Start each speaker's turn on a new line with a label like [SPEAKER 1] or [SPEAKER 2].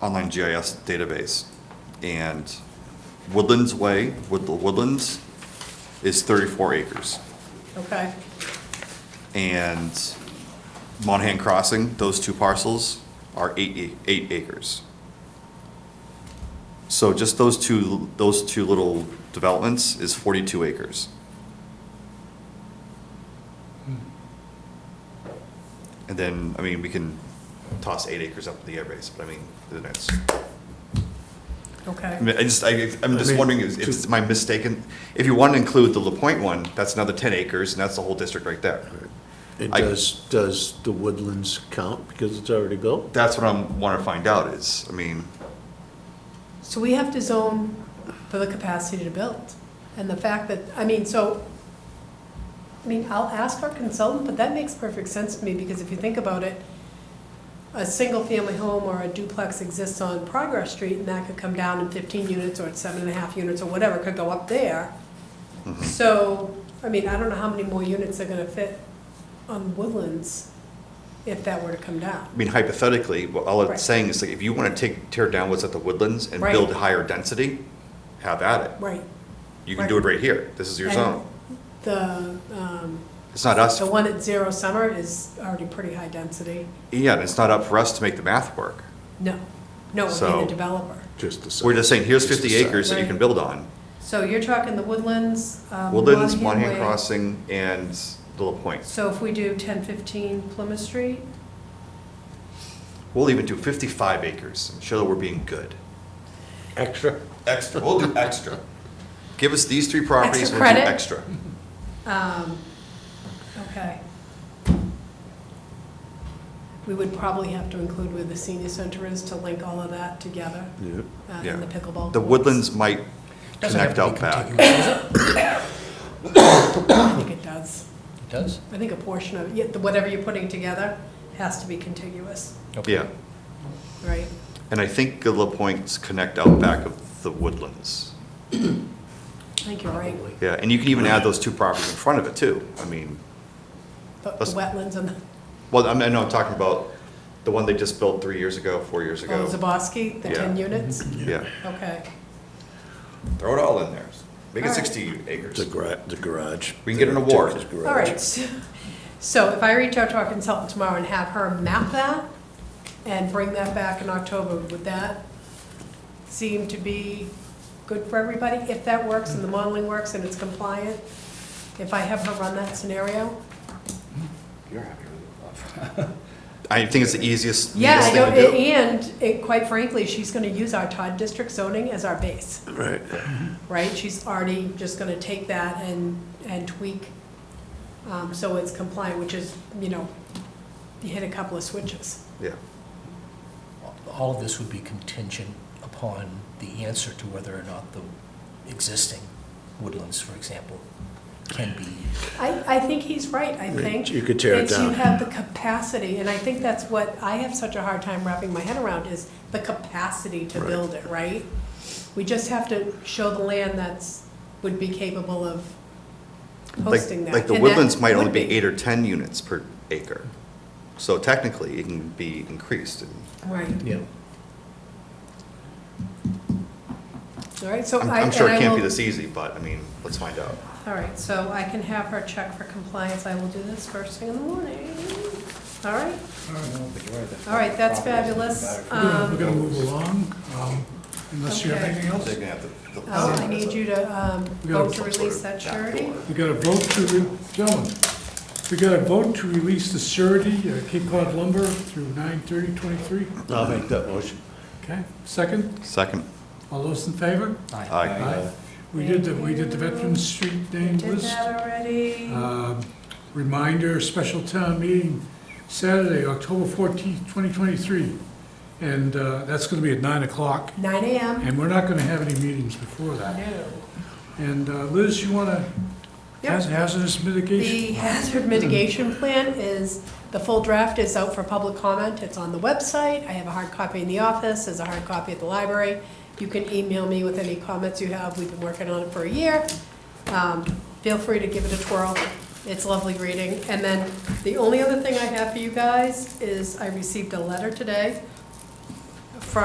[SPEAKER 1] online GIS database. And Woodlands Way, Wood- Woodlands, is 34 acres.
[SPEAKER 2] Okay,
[SPEAKER 1] And Monahan Crossing, those two parcels are eight, ac- eight acres. So just those two, those two little developments is 42 acres. And then, I mean, we can toss eight acres up to the airbase, but I mean, then it's, I
[SPEAKER 2] okay.
[SPEAKER 1] mean, I just, I, I'm
[SPEAKER 3] I
[SPEAKER 1] just
[SPEAKER 3] mean,
[SPEAKER 1] wondering if if it's my mistaken, if you want to include the La Pointe one, that's another 10 acres and that's the whole district right there.
[SPEAKER 3] And
[SPEAKER 1] I-
[SPEAKER 3] does, does the woodlands count because it's already built?
[SPEAKER 1] That's what I'm, want to find out is, I mean,
[SPEAKER 2] So we have to zone for the capacity to build. And the fact that, I mean, so, I mean, I'll ask our consultant, but that makes perfect sense to me, because if you think about it, a single-family home or a duplex exists on Progress Street, and that could come down in fifteen units, or it's seven and a half units, or whatever, could go up there. So, I mean, I don't know how many more units are gonna fit on Woodlands if that were to come down.
[SPEAKER 1] I mean hypothetically, what all
[SPEAKER 2] Right.
[SPEAKER 1] it's saying is like, if you want to take, tear down what's at the Woodlands and
[SPEAKER 2] Right.
[SPEAKER 1] build higher density, have at it.
[SPEAKER 2] Right.
[SPEAKER 1] You can do it right here. This is your
[SPEAKER 2] And
[SPEAKER 1] zone.
[SPEAKER 2] The, um,
[SPEAKER 1] It's not us,
[SPEAKER 2] The one at Zero Summer is already pretty high density.
[SPEAKER 1] yeah, and it's not up for us to make the math work.
[SPEAKER 2] No, no, it would be
[SPEAKER 1] So-
[SPEAKER 2] the developer.
[SPEAKER 3] Just the side.
[SPEAKER 1] We're just saying, here's
[SPEAKER 3] Just the
[SPEAKER 1] fifty
[SPEAKER 3] side.
[SPEAKER 1] acres that you can
[SPEAKER 2] Right.
[SPEAKER 1] build on.
[SPEAKER 2] So you're talking the Woodlands, um,
[SPEAKER 1] Woodlands,
[SPEAKER 2] Monahan
[SPEAKER 1] Monahan
[SPEAKER 2] Way.
[SPEAKER 1] Crossing, and Little Point.
[SPEAKER 2] So if we do ten fifteen Plymouth Street,
[SPEAKER 1] We'll even do fifty-five acres. Show that we're being good.
[SPEAKER 3] Extra.
[SPEAKER 1] Extra, we'll do extra. Give us these three properties,
[SPEAKER 2] Extra
[SPEAKER 1] we'll do
[SPEAKER 2] credit?
[SPEAKER 1] extra.
[SPEAKER 2] um, okay. We would probably have to include where the senior center is to link all of that together,
[SPEAKER 3] Yeah.
[SPEAKER 2] uh,
[SPEAKER 1] Yeah.
[SPEAKER 2] and the pickleball.
[SPEAKER 1] The
[SPEAKER 2] courts.
[SPEAKER 1] Woodlands might
[SPEAKER 4] Doesn't have
[SPEAKER 1] connect
[SPEAKER 4] to be
[SPEAKER 1] out back.
[SPEAKER 4] contiguous, does it?
[SPEAKER 2] I think it does.
[SPEAKER 4] It does?
[SPEAKER 2] I think a portion of, yeah, the- whatever you're putting together has to be contiguous,
[SPEAKER 4] Okay.
[SPEAKER 1] Yeah.
[SPEAKER 2] right?
[SPEAKER 1] And I think La Points connect out back of the woodlands.
[SPEAKER 2] I think you're right.
[SPEAKER 3] Probably.
[SPEAKER 1] Yeah, and you can even add those two properties in front of it too. I mean,
[SPEAKER 2] The the
[SPEAKER 1] Let's-
[SPEAKER 2] wetlands and the.
[SPEAKER 1] well, I'm, I know I'm talking about the one they just built three years ago, four years
[SPEAKER 2] Oh,
[SPEAKER 1] ago.
[SPEAKER 2] Zaboski, the
[SPEAKER 1] Yeah. Mm-hmm.
[SPEAKER 2] 10 units?
[SPEAKER 1] Yeah,
[SPEAKER 2] Okay,
[SPEAKER 1] throw it all in there. Make it
[SPEAKER 2] All right.
[SPEAKER 1] sixty acres.
[SPEAKER 3] The gar, the garage.
[SPEAKER 1] We can get an award.
[SPEAKER 3] His garage.
[SPEAKER 2] all right. So if I reach out to our consultant tomorrow and have her map that and bring that back in October, would that seem to be good for everybody? If that works and the modeling works and it's compliant, if I have her run that scenario?
[SPEAKER 1] You're happy with it. I think it's the easiest,
[SPEAKER 2] Yeah,
[SPEAKER 1] easiest
[SPEAKER 2] I don't-
[SPEAKER 1] thing to do.
[SPEAKER 2] and it- quite frankly, she's going to use our Todd District zoning as our base.
[SPEAKER 3] Right.
[SPEAKER 2] right? She's already just gonna take that and, and tweak, um, so it's compliant, which is, you know, you hit a couple of switches.
[SPEAKER 1] Yeah,
[SPEAKER 4] All of this would be contingent upon the answer to whether or not the existing woodlands, for example, can be,
[SPEAKER 2] I, I think he's right, I think.
[SPEAKER 3] You could tear it
[SPEAKER 2] it's
[SPEAKER 3] down.
[SPEAKER 2] You have the capacity, and I think that's what I have such a hard time wrapping my head around, is the capacity to
[SPEAKER 3] Right.
[SPEAKER 2] build it, right? We just have to show the land that's, would be capable of
[SPEAKER 1] like,
[SPEAKER 2] hosting that.
[SPEAKER 1] like the
[SPEAKER 2] and that
[SPEAKER 1] woodlands might only
[SPEAKER 2] would
[SPEAKER 1] be eight or ten units per acre. So technically, it can be increased. and-
[SPEAKER 2] Right.
[SPEAKER 4] you
[SPEAKER 2] All right, so
[SPEAKER 1] I'm,
[SPEAKER 2] Oh, I,
[SPEAKER 1] I'm
[SPEAKER 2] and
[SPEAKER 1] sure it
[SPEAKER 2] I
[SPEAKER 1] can't
[SPEAKER 2] will
[SPEAKER 1] be this easy, but I mean, let's find out.
[SPEAKER 2] All right, so I can have her check for compliance. I will do this first thing in the morning. All right, all right, that's fabulous.
[SPEAKER 5] We're
[SPEAKER 2] Um,
[SPEAKER 5] gonna move along, um, unless you have
[SPEAKER 2] Okay.
[SPEAKER 5] anything else.
[SPEAKER 1] They're gonna have to-
[SPEAKER 2] uh, I need you to um,
[SPEAKER 5] We gotta
[SPEAKER 2] vote to release that surety.
[SPEAKER 5] We got a vote to, re- gentlemen, we got a vote to release the surety, uh, Cape Cod lumber through nine thirty twenty-three.
[SPEAKER 3] I'll make that motion.
[SPEAKER 5] Okay, second,
[SPEAKER 1] Second.
[SPEAKER 5] all those in favor?
[SPEAKER 1] Aye.
[SPEAKER 5] We did the, we did the Veterans Street
[SPEAKER 2] You
[SPEAKER 5] name
[SPEAKER 2] did
[SPEAKER 5] list.
[SPEAKER 2] that already.
[SPEAKER 5] Um, Reminder, special town meeting Saturday, October fourteenth, twenty twenty-three. And, uh, that's gonna be at nine o'clock,
[SPEAKER 2] Nine AM.
[SPEAKER 5] and we're not gonna have any meetings before that.
[SPEAKER 2] No.
[SPEAKER 5] And uh, Liz, you wanna
[SPEAKER 2] Yep.
[SPEAKER 5] haz- hazardous mitigation?
[SPEAKER 2] The hazard mitigation plan is, the full draft is out for public comment. It's on the website. I have a hard copy in the office, there's a hard copy at the library. You can email me with any comments you have. We've been working on it for a year. Um, Feel free to give it a twirl. It's lovely reading. And then the only other thing I have for you guys is I received a letter today